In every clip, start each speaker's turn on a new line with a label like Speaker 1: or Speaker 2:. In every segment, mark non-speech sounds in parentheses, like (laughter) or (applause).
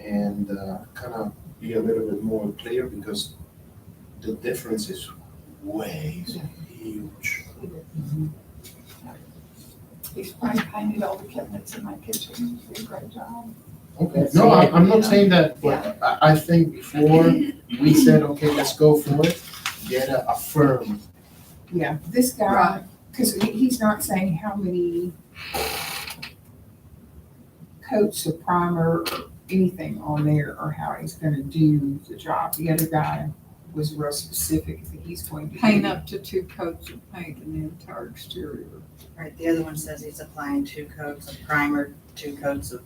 Speaker 1: and kind of be a little bit more clear because the difference is way huge.
Speaker 2: He's probably painted all the cabinets in my kitchen. He did a great job.
Speaker 1: Okay, no, I- I'm not saying that,
Speaker 2: Yeah.
Speaker 1: but I, I think before we said, okay, let's go for it, get a a firm.
Speaker 2: Yeah, this guy,
Speaker 3: Right.
Speaker 2: because he's not saying how many coats of primer or anything on there or how he's gonna do the job. The other guy was real specific that he's going to. do-
Speaker 3: Paint up to two coats of paint in the entire exterior.
Speaker 4: Right, the other one says he's applying two coats of primer, two coats of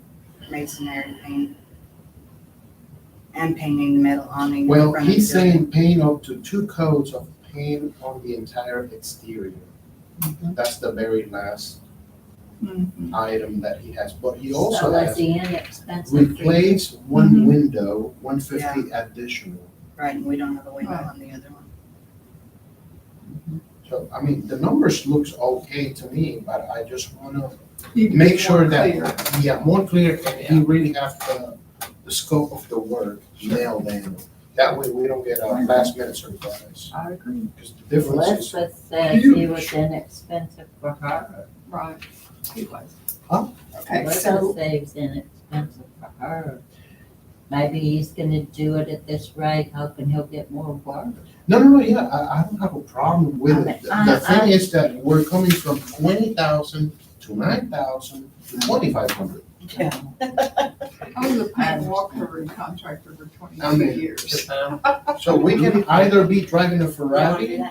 Speaker 4: masonry paint, and painting the metal awning. in
Speaker 1: Well,
Speaker 4: front of
Speaker 1: he's
Speaker 4: the building.
Speaker 1: saying paint up to two coats of paint on the entire exterior. That's the very last item that he has, but he also
Speaker 5: So that's
Speaker 1: has
Speaker 5: the end expense. of three-
Speaker 1: replace one window, one fifty additional.
Speaker 4: Right, and we don't have a window
Speaker 2: Right.
Speaker 4: on the other one.
Speaker 1: So, I mean, the numbers looks okay to me, but I just wanna
Speaker 2: You can
Speaker 1: make
Speaker 2: be
Speaker 1: sure
Speaker 2: more
Speaker 1: that,
Speaker 2: clear.
Speaker 1: yeah, more clear and he really have the, the scope of the work nailed in. That way we don't get a last minute surprise,
Speaker 2: I agree.
Speaker 1: because the
Speaker 5: Let's
Speaker 1: difference is,
Speaker 5: just say it was inexpensive for her.
Speaker 3: Right. He was.
Speaker 2: Okay,
Speaker 5: Let's
Speaker 2: so
Speaker 5: just say it was inexpensive for her. Maybe he's gonna do it at this rate, hoping he'll get more work.
Speaker 1: no, no, no, yeah, I, I don't have a problem with it. The the
Speaker 5: I- I-
Speaker 1: thing is that we're coming from twenty thousand to nine thousand to twenty-five hundred.
Speaker 3: I was a paint walker and contractor for
Speaker 1: I
Speaker 3: twenty-two
Speaker 1: mean,
Speaker 3: years.
Speaker 1: So we can either be driving a Ferrari, a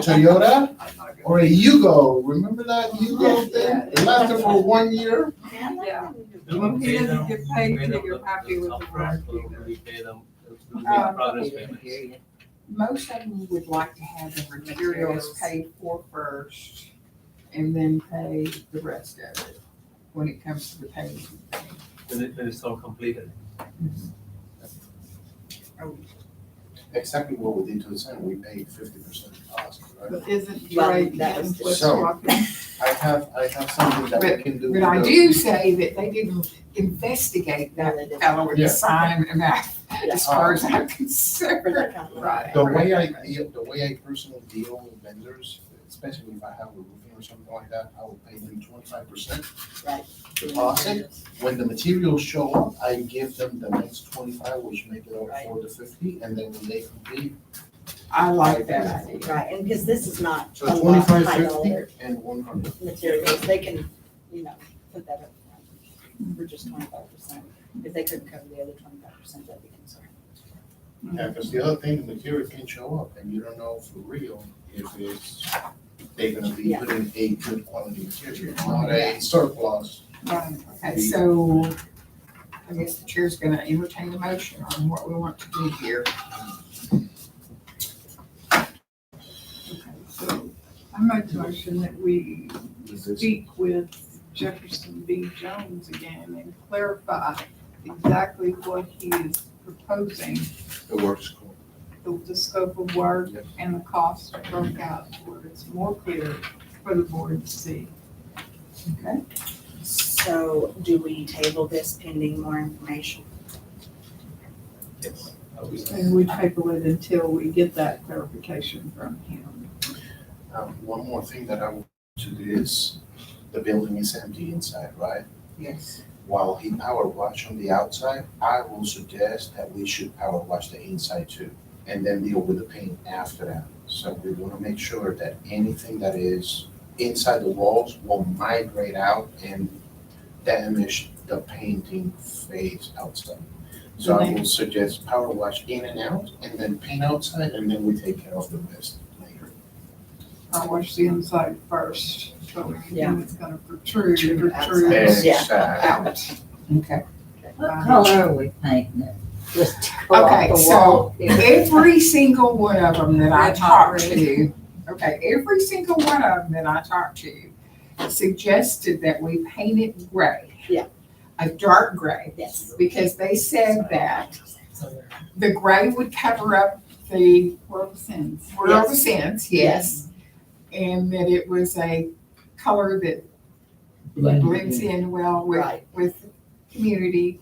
Speaker 1: Toyota,
Speaker 3: I'm not gonna-
Speaker 1: Or a Yugo, remember that Yugo
Speaker 3: Yeah,
Speaker 1: thing? It lasted for one year.
Speaker 3: Yeah.
Speaker 6: We will
Speaker 3: He
Speaker 6: pay
Speaker 3: doesn't
Speaker 6: them-
Speaker 3: get paid
Speaker 6: we pay
Speaker 3: till
Speaker 6: them
Speaker 3: you're
Speaker 6: the-
Speaker 3: happy
Speaker 6: the Oh,
Speaker 3: with the work
Speaker 6: upfront, but
Speaker 3: either.
Speaker 6: We pay them, it's the
Speaker 2: Uh,
Speaker 6: progress payments.
Speaker 5: Period.
Speaker 2: most of them would like to have the materials
Speaker 4: Materials.
Speaker 2: paid for first and then pay the rest of it when it comes to the payment.
Speaker 6: When it, when it's all completed.
Speaker 1: Exactly what we did to the center, we paid fifty percent cost, right?
Speaker 3: Isn't
Speaker 4: Well,
Speaker 3: Drake
Speaker 4: that
Speaker 3: getting
Speaker 4: was
Speaker 3: what's
Speaker 1: just-
Speaker 3: walking?
Speaker 1: I have, I have something that we can do.
Speaker 2: But I
Speaker 1: with
Speaker 2: do say that they didn't investigate that fellow with
Speaker 1: Yeah.
Speaker 2: the sign and that, as far as I'm concerned.
Speaker 1: the-
Speaker 2: Right.
Speaker 1: The way I deal, the way I personally deal with vendors, especially if I have a roofing or something like that, I will pay them twenty-five percent
Speaker 4: Right.
Speaker 1: deposit. When the materials show up, I give them the next twenty-five, which make it up for the fifty, and then when they complete,
Speaker 2: I like that idea.
Speaker 4: Right, and because this is not a
Speaker 1: so
Speaker 4: lot
Speaker 1: twenty-five,
Speaker 4: high
Speaker 1: fifty,
Speaker 4: dollar
Speaker 1: and one hundred.
Speaker 4: materials, they can, you know, put that up front for just twenty-five percent. If they couldn't cover the other twenty-five percent, that'd be concerning.
Speaker 1: Yeah, because the other thing, the material can show up and you don't know for real if it's, they're gonna be
Speaker 4: Yeah.
Speaker 1: putting a good quality material, not a surplus.
Speaker 2: Right. Okay, so I guess the chair's gonna entertain a motion on what we want to do here.
Speaker 3: (laughs) Okay, so I make a motion that we speak with Jefferson B. Jones again and clarify exactly what he is proposing,
Speaker 1: The works. call.
Speaker 3: the, the scope of work
Speaker 1: Yep.
Speaker 3: and the cost broke out to where it's more clear for the board to see.
Speaker 2: Okay,
Speaker 4: So do we table this pending more information?
Speaker 6: Yes. Uh, we-
Speaker 3: And we table it until we get that clarification from him.
Speaker 1: Um, one more thing that I want to do is, the building is empty inside, right?
Speaker 2: yes.
Speaker 1: While he power wash on the outside, I will suggest that we should power wash the inside too, and then deal with the paint after that. So we wanna make sure that anything that is inside the walls will migrate out and damage the painting phase outside. So I will suggest power wash in and out, and then paint outside, and then we take care of the rest later.
Speaker 3: I wash the inside first, so we can
Speaker 4: Yeah.
Speaker 3: know it's gonna protrude,
Speaker 4: Protrude
Speaker 3: protrude
Speaker 4: outside. Yeah.
Speaker 1: uh, Exactly.
Speaker 3: out.
Speaker 2: Okay.
Speaker 5: What color are we painting it? Just to go off
Speaker 2: Uh-huh. Okay,
Speaker 5: the
Speaker 2: so
Speaker 5: wall here.
Speaker 2: Every single one of them that I
Speaker 3: Red,
Speaker 2: talked
Speaker 3: hot,
Speaker 2: to, okay, every single one of them that I talked to suggested that we paint it gray.
Speaker 4: Yeah.
Speaker 2: A dark gray,
Speaker 4: Yes.
Speaker 2: because they said that the gray would cover up the
Speaker 3: World sins.
Speaker 2: world of
Speaker 4: Yes.
Speaker 2: sense, yes. And that it was a color that blends in well with,
Speaker 4: Right.
Speaker 2: with the community.